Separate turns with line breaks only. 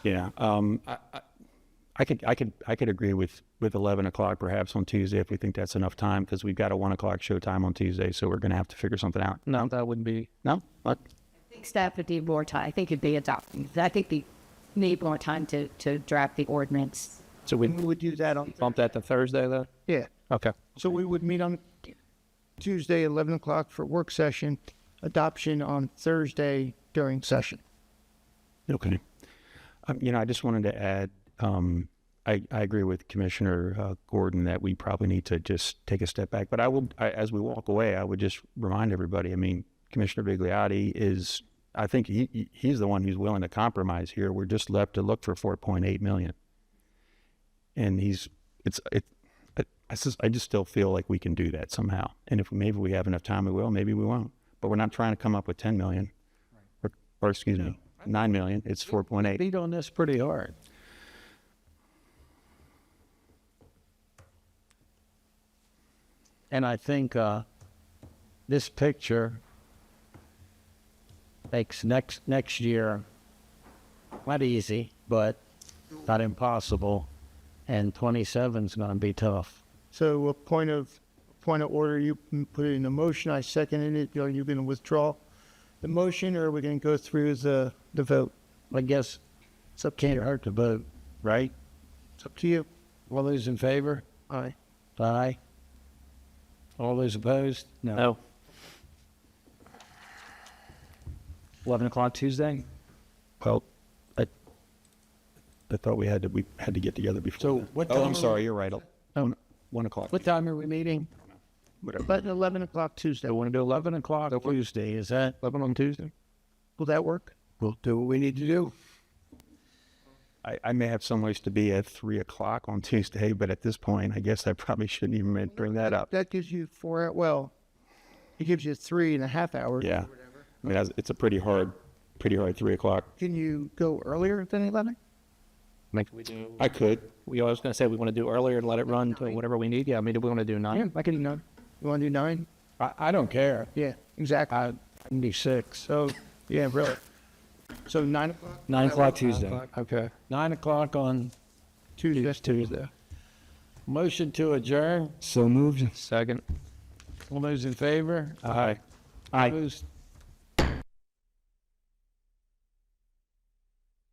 Yeah, um, I, I- I could, I could, I could agree with, with eleven o'clock perhaps on Tuesday if we think that's enough time, because we've got a one o'clock show time on Tuesday, so we're gonna have to figure something out.
No, that wouldn't be.
No, What?
I think staff would need more time. I think it'd be adopting. I think they need more time to, to draft the ordinance.
So we
We would do that on,
bump that to Thursday then?
yeah.
Okay.
So we would meet on Tuesday, 11 o'clock for work session, adoption on Thursday during session.
Okay. Um, you know, I just wanted to add, um, I, I agree with Commissioner uh, Gordon that we probably need to just take a step back. But I will, I, as we walk away, I would just remind everybody. I mean, Commissioner Bigliotti is, I think he, he- he's the one who's willing to compromise here. We're just left to look for 4.8 million, and he's, it's, it, I, I just, I just still feel like we can do that somehow. And if maybe we have enough time, we will. Maybe we won't. But we're not trying to come up with 10 million or, or excuse me, nine million. It's four point eight.
Beat on this pretty hard. And I think uh, this picture makes next next year not easy, but not impossible. And 27 is going to be tough.
So a point of, point of order, you m- put it in a motion, I seconded it, are you going to withdraw the motion or are we going to go through the, the vote?
I guess
It's up to
can't
you,
hurt to vote, right?
it's up to you.
All those in favor?
Aye.
Aye. All those opposed?
No. Eleven o'clock Tuesday.
Well, I, I thought we had to we had to get together before.
So
then.
what
Oh,
time-
I'm sorry. You're right. Oh, one o'clock.
What time are we meeting?
Whatever.
But 11 o'clock Tuesday,
They want to do 11 o'clock Tuesday, is that?
Eleven on Tuesday.
will that work?
We'll do what we need to do.
I, I may have some ways to be at three o'clock on Tuesday, but at this point, I guess I probably shouldn't even bring that up.
That gives you four, hou- well, it gives you three and a half hours.
Yeah, I mean that's- it's a pretty hard, pretty hard three o'clock.
Can you go earlier than 11?
We do.
I could.
We always gonna say we want to do earlier and let it run to whatever we need. Yeah, I mean, do we want to do nine?
I can do nine. You want to do nine?
I, I don't care.
Yeah, exactly.
I, can do six.
So, yeah, really. So nine o'clock
Nine o'clock Tuesday.
Okay. Nine o'clock on
Tuesday.
Tuesday. Motion to adjourn.
So moved. Second.
All those in favor?
Aye. Aye.
Opposed?